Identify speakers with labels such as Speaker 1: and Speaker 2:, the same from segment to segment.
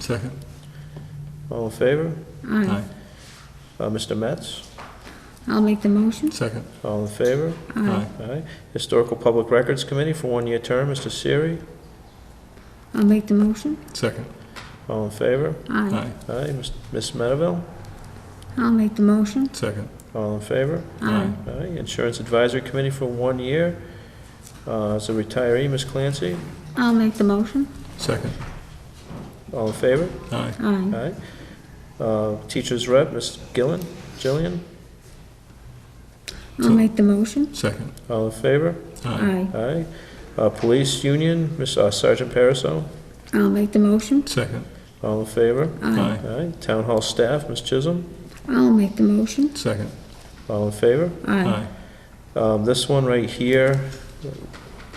Speaker 1: Second.
Speaker 2: All in favor?
Speaker 1: Aye.
Speaker 2: Uh, Mr. Metz?
Speaker 3: I'll make the motion.
Speaker 1: Second.
Speaker 2: All in favor?
Speaker 1: Aye.
Speaker 2: Aye. Historical Public Records Committee for one-year term, Mr. Siri?
Speaker 3: I'll make the motion.
Speaker 1: Second.
Speaker 2: All in favor?
Speaker 3: Aye.
Speaker 1: Aye.
Speaker 2: Aye. Ms. Ms. Medeville?
Speaker 3: I'll make the motion.
Speaker 1: Second.
Speaker 2: All in favor?
Speaker 3: Aye.
Speaker 2: Aye. Insurance Advisory Committee for one year, uh, as a retiree, Ms. Clancy?
Speaker 3: I'll make the motion.
Speaker 1: Second.
Speaker 2: All in favor?
Speaker 1: Aye.
Speaker 3: Aye.
Speaker 2: Aye. Uh, Teachers Rep, Ms. Gillen, Jillian?
Speaker 3: I'll make the motion.
Speaker 1: Second.
Speaker 2: All in favor?
Speaker 1: Aye.
Speaker 3: Aye.
Speaker 2: Aye. Uh, Police Union, Ms. uh, Sergeant Pariseau?
Speaker 3: I'll make the motion.
Speaker 1: Second.
Speaker 2: All in favor?
Speaker 3: Aye.
Speaker 2: Aye. Town Hall Staff, Ms. Chisholm?
Speaker 3: I'll make the motion.
Speaker 1: Second.
Speaker 2: All in favor?
Speaker 3: Aye.
Speaker 2: Um, This one right here,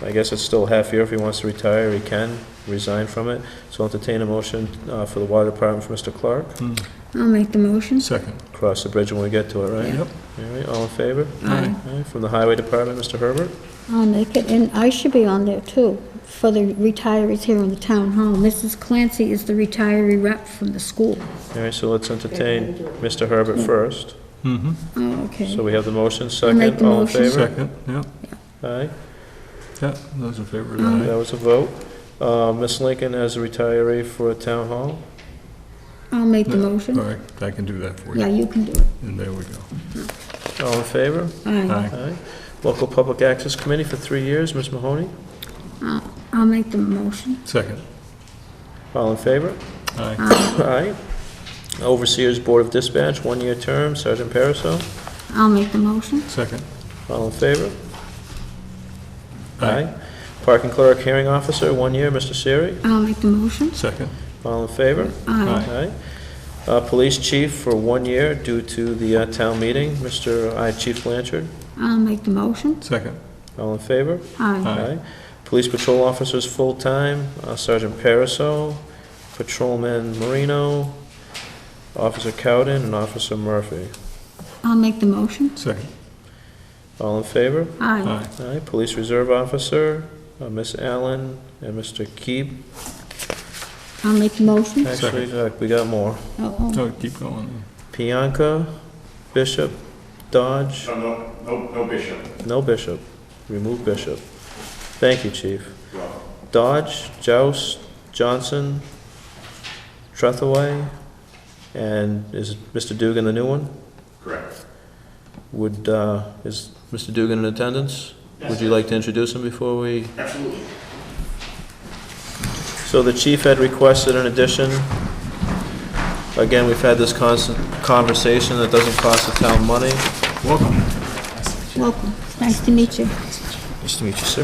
Speaker 2: I guess it's still half year. If he wants to retire, he can resign from it. So I'll entertain a motion uh, for the Water Department for Mr. Clark.
Speaker 1: Mm.
Speaker 3: I'll make the motion.
Speaker 1: Second.
Speaker 2: Cross the bridge when we get to it, right?
Speaker 1: Yep.
Speaker 2: All right, all in favor?
Speaker 1: Aye.
Speaker 2: All right, From the Highway Department, Mr. Herbert?
Speaker 3: I'll make it, and I should be on there too, for the retirees here in the town hall. Mrs. Clancy is the retiree rep from the school.
Speaker 2: All right, so let's entertain Mr. Herbert first.
Speaker 1: Mm-hmm.
Speaker 3: Oh,
Speaker 2: So
Speaker 3: okay.
Speaker 2: we have the motion,
Speaker 3: make
Speaker 2: second,
Speaker 3: the
Speaker 2: all in
Speaker 3: motion.
Speaker 2: favor?
Speaker 1: Second. Yep.
Speaker 2: Aye,
Speaker 1: Yeah. Those in favor of
Speaker 3: Aye.
Speaker 2: that
Speaker 1: that.
Speaker 2: was a vote. Uh, Ms. Lincoln as a retiree for Town Hall.
Speaker 3: I'll make the
Speaker 1: No. All
Speaker 3: motion.
Speaker 1: right. I can do that for
Speaker 3: Yeah,
Speaker 1: you.
Speaker 3: you can do it.
Speaker 1: And there we go.
Speaker 2: All in favor?
Speaker 3: Aye.
Speaker 1: Aye.
Speaker 2: Aye. Local Public Access Committee for three years, Ms. Mahoney.
Speaker 3: Uh, I'll make the motion.
Speaker 1: Second.
Speaker 2: All in favor?
Speaker 1: Aye.
Speaker 3: Aye.
Speaker 2: Aye. Overseers Board of Dispatch, one-year term, Sergeant Pariseau.
Speaker 3: I'll make the motion.
Speaker 1: Second.
Speaker 2: All in favor? Parking Clerk Hearing Officer, one year, Mr. Siri.
Speaker 3: I'll make the motion.
Speaker 1: Second.
Speaker 2: All in favor?
Speaker 3: Aye.
Speaker 2: Aye. Uh, Police Chief for one year due to the uh, town meeting, Mr. I, Chief Blanchard.
Speaker 3: I'll make the motion.
Speaker 1: Second.
Speaker 2: All in favor?
Speaker 1: Aye.
Speaker 3: Aye.
Speaker 2: Police Patrol Officers, full-time, uh, Sergeant Pariseau, Patrolman Marino, Officer Cowden, and Officer Murphy.
Speaker 3: I'll make the motion.
Speaker 1: Second.
Speaker 2: All in favor?
Speaker 3: Aye.
Speaker 1: Aye.
Speaker 2: Aye, Police Reserve Officer, uh, Miss Allen and Mr. Keeb.
Speaker 3: I'll make the motion.
Speaker 2: Actually, uh, we got more.
Speaker 3: Oh, oh.
Speaker 1: No, keep going.
Speaker 2: Pianca, Bishop, Dodge,
Speaker 4: No, Uh, no, no, no bishop.
Speaker 2: no Bishop. Remove Bishop. Thank you, Chief. Dodge, Joust, Johnson, Trethaway, and is Mr. Dugan the new one?
Speaker 4: Correct.
Speaker 2: Would, uh, is Mr. Dugan in attendance? Would you like to introduce him before we?
Speaker 4: Absolutely.
Speaker 2: So the chief had requested an addition. Again, we've had this constant conversation that doesn't cost the town money.
Speaker 1: Welcome.
Speaker 3: Welcome. It's Nice to meet you.
Speaker 2: Nice to meet you, sir.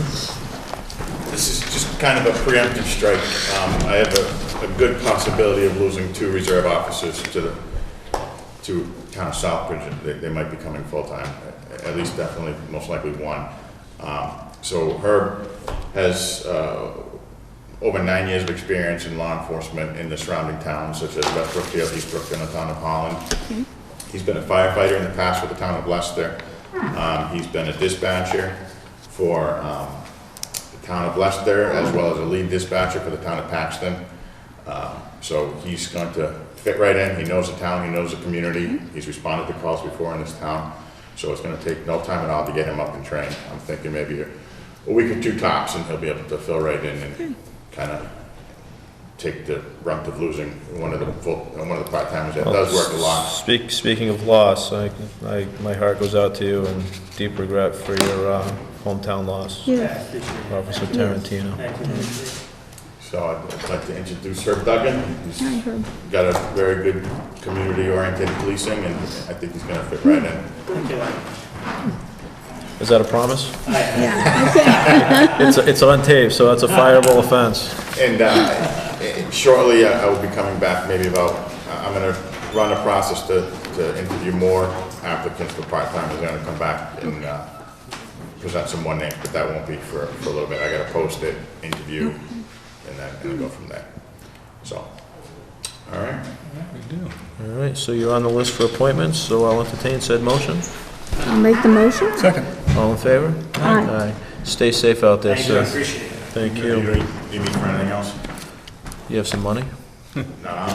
Speaker 4: This is just kind of a preemptive strike. Um, I have a, a good possibility of losing two reserve officers to the, to town of Southbridge. and They, they might be coming full-time, at- at least definitely, most likely one. Um, so Herb has, uh, over nine years of experience in law enforcement in the surrounding towns such as West Brookfield, East Brookfield, and the town of Holland. He's been a firefighter in the past for the town of Leicester. Um, he's been a dispatcher for, um, the town of Leicester, as well as a lead dispatcher for the town of Paxton. Um, so he's going to fit right in. He knows the town, he knows the community. He's responded to calls before in this town. So it's gonna take no time at all to get him up and trained. I'm thinking maybe a a week or two tops, and he'll be able to fill right in and kinda take the brunt of losing one of the full, one of the part-timers that does work a lot.
Speaker 2: Speak, speaking of loss, I, I, my heart goes out to you and deep regret for your, uh, hometown loss,
Speaker 3: Yeah.
Speaker 2: Officer Tarantino.
Speaker 4: So I'd like to introduce Herb Duggan. He's
Speaker 3: Hi, Herb.
Speaker 4: got a very good community-oriented policing, and I think he's gonna fit right in.
Speaker 2: Is that a promise?
Speaker 3: Yeah. Okay.
Speaker 2: It's, it's on tape, so that's a fireable offense.
Speaker 4: And uh, shortly, I I will be coming back, maybe about, I- I'm gonna run a process to, to interview more applicants for part-time, I'm gonna come back and uh, present some more names, but that won't be for, for a little bit, I gotta post it, interview, and then, and go from there. So, all right?
Speaker 2: All right, so you're on the list for appointments, so I'll entertain said motion.
Speaker 3: I'll make the motion.
Speaker 1: Second.
Speaker 2: All in favor?
Speaker 3: Aye.
Speaker 2: Stay safe out there, sir.
Speaker 4: appreciate it.
Speaker 2: Thank
Speaker 4: Do you
Speaker 2: you.
Speaker 4: need- do you need for anything else?
Speaker 2: You have some money?
Speaker 4: No,